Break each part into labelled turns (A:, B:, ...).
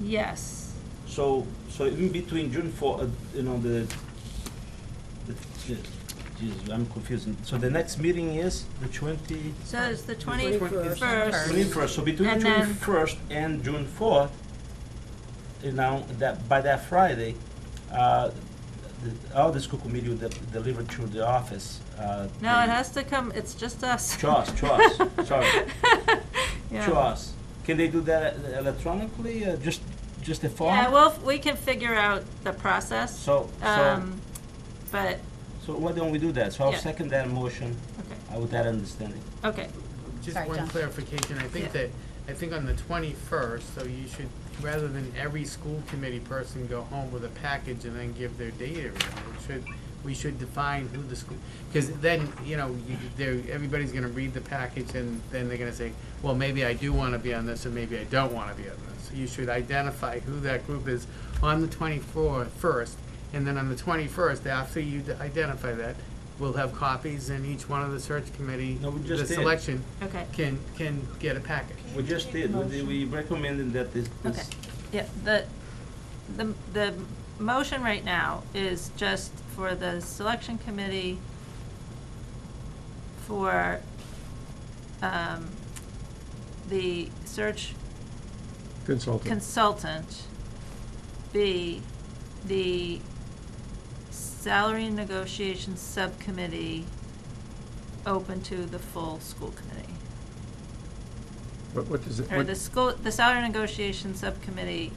A: Yes.
B: So, so in between June for, uh, you know, the, the, the- geez, I'm confusing. So the next meeting is the twenty?
A: So it's the
B: Twenty-
A: twenty-first.
B: Twenty-first, so between
A: And
B: June
A: then-
B: first and June fourth, you know, that, by that Friday, uh, the, all the school committee will de- deliver to the office, uh.
A: No, it
B: the-
A: has to come, it's just us.
B: To us, to us, sorry,
A: Yeah.
B: to us. Can they do that e- electronically, uh, just, just a form?
A: Yeah, well, we can figure out the process.
B: So, so,
A: Um, but,
B: so why don't we do that? So I'll
A: Yeah.
B: second that motion,
A: okay,
B: uh, with that understanding.
A: okay,
C: Just
D: Sorry,
C: one
D: John.
C: clarification, I
A: Yeah.
C: think that, I think on the twenty-first, so you should, rather than every school committee person go home with a package and then give their data, around, it should, we should define who the school, because then, you know, you, there, everybody's gonna read the package and then they're gonna say, well, maybe I do wanna be on this, or maybe I don't wanna be on this. You should identify who that group is on the twenty-fourth first, and then on the twenty-first, after you d- identify that, we'll have copies and each one of the search committee,
B: No, we
C: the
B: just did.
C: selection,
A: okay.
C: can, can get a package.
B: We just did, we did- we recommended that this,
A: Okay,
B: this,
A: yeah, the, the, the motion right now is just for the selection committee for, um, the search
E: Consultant.
A: consultant be the salary negotiations subcommittee open to the full school committee.
E: What, what does it,
A: Or
E: what-
A: the school, the salary negotiation subcommittee,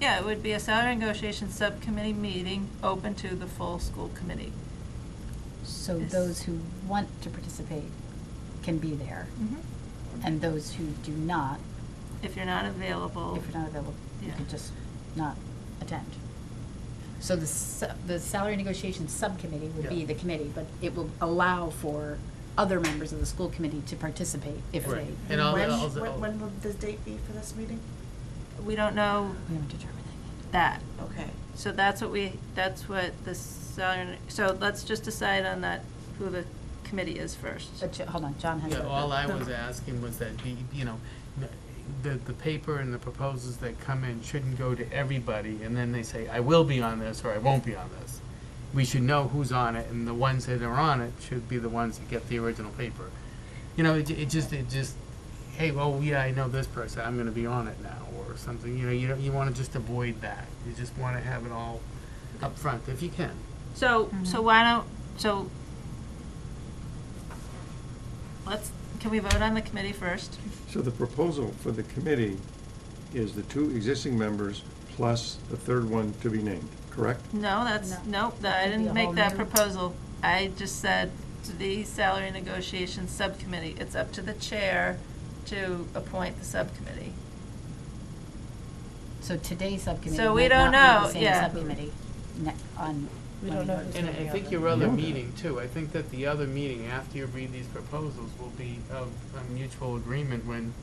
A: yeah, it would be a salary negotiation subcommittee meeting open to the full school committee.
D: So
A: Yes.
D: those who want to participate can be there, and those who do not,
A: If you're not available,
D: if you're not available,
A: Oh.
D: you
A: Yeah.
D: could just not attend. So the, s- the salary negotiation subcommittee would be
C: Yeah.
D: the committee, but it will allow for other members of the school committee to participate if they,
C: Right.
D: we
C: And I'll-
F: When,
C: I'll- I'll-
F: when, when will the date be for this meeting?
A: we don't know
D: haven't determined that
A: that.
F: Okay.
A: So that's what we, that's what the salary, so let's just decide on that, who the committee is first.
D: yet. But, Jo- hold on, John has.
C: Yeah,
D: a-
C: all I was asking was that, the you know, the, the paper and the proposals that come in shouldn't go to everybody, and then they say, I will be on this, or I won't be on this. We should know who's on it, and the ones that are on it should be the ones that get the original paper. You know, it, ju- it just, it just, hey, well, yeah, I know this person, I'm gonna be on it now, or something, you know, you don't, you wanna just avoid that. You just wanna have it all up front if you can.
A: So,
D: Mm-hmm.
A: so why don't, so, let's, can we vote on the committee first?
E: so the proposal for the committee is the two existing members plus the third one to be named, correct?
A: No, that's,
D: No.
A: nope, that- I
D: That could be
A: didn't
D: a
A: make
D: whole
A: that
D: new-
A: proposal. I just said to the salary negotiations subcommittee, it's up to the chair to appoint the subcommittee.
D: So today's subcommittee
A: So we
D: might
A: don't
D: not
A: know,
D: be the same
A: yeah.
D: subcommittee ne- on.
F: We
D: when
F: don't know
D: vote.
F: who's
C: And I
F: gonna be on
C: think
F: it.
C: your other
E: Yeah.
C: meeting too, I think that the other meeting after you read these proposals will be of a mutual agreement when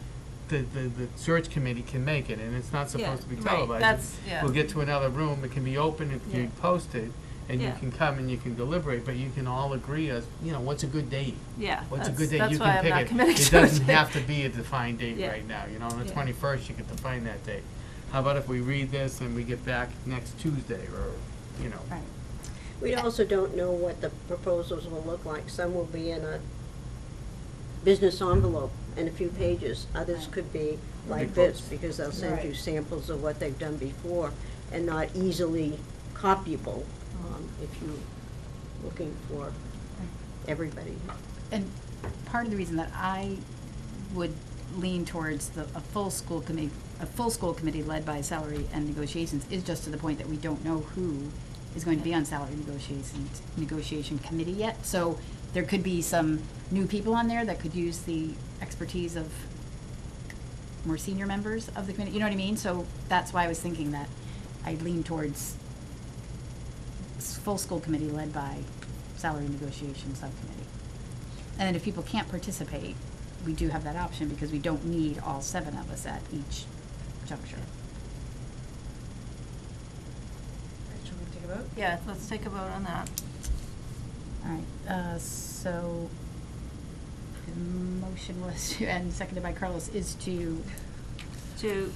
C: the, the, the search committee can make it, and it's not supposed to be
A: Yeah, right,
C: televised.
A: that's-
C: It's-
A: yeah.
C: We'll get to another room, it can be open, it can
A: Yeah.
C: be posted, and you
A: Yeah.
C: can come and you can deliberate, but you can all agree as, you know, what's a good date?
A: Yeah,
C: What's a
A: that's-
C: good date,
A: that's
C: you
A: why
C: can
A: I'm
C: pick
A: not
C: it.
A: committing
C: It
A: to
C: doesn't
A: it.
C: have to be a defined date
A: Yeah.
C: right now, you know, on the
A: Yeah.
C: twenty-first, you can define that date. How about if we read this and we get back next Tuesday, or, you know?
D: Right.
G: We also don't know what the proposals will look like. Some will be in a business envelope and a few pages. Others could be like this, because they'll send you
F: Right.
G: samples of what they've done before and not easily copyable, um, if you're looking for everybody.
D: And part of the reason that I would lean towards the, a full school committee, a full school committee led by salary and negotiations is just to the point that we don't know who is going to be on salary negotiations, negotiation committee yet. So there could be some new people on there that could use the expertise of more senior members of the committee, you know what I mean? So that's why I was thinking that I lean towards s- full school committee led by salary negotiation subcommittee. And then if people can't participate, we do have that option because we don't need all seven of us at each juncture.
F: Should we take a vote?
A: Yeah, let's take a vote on that.
D: All right, uh, so the motion was, to and seconded by Carlos, is to
A: To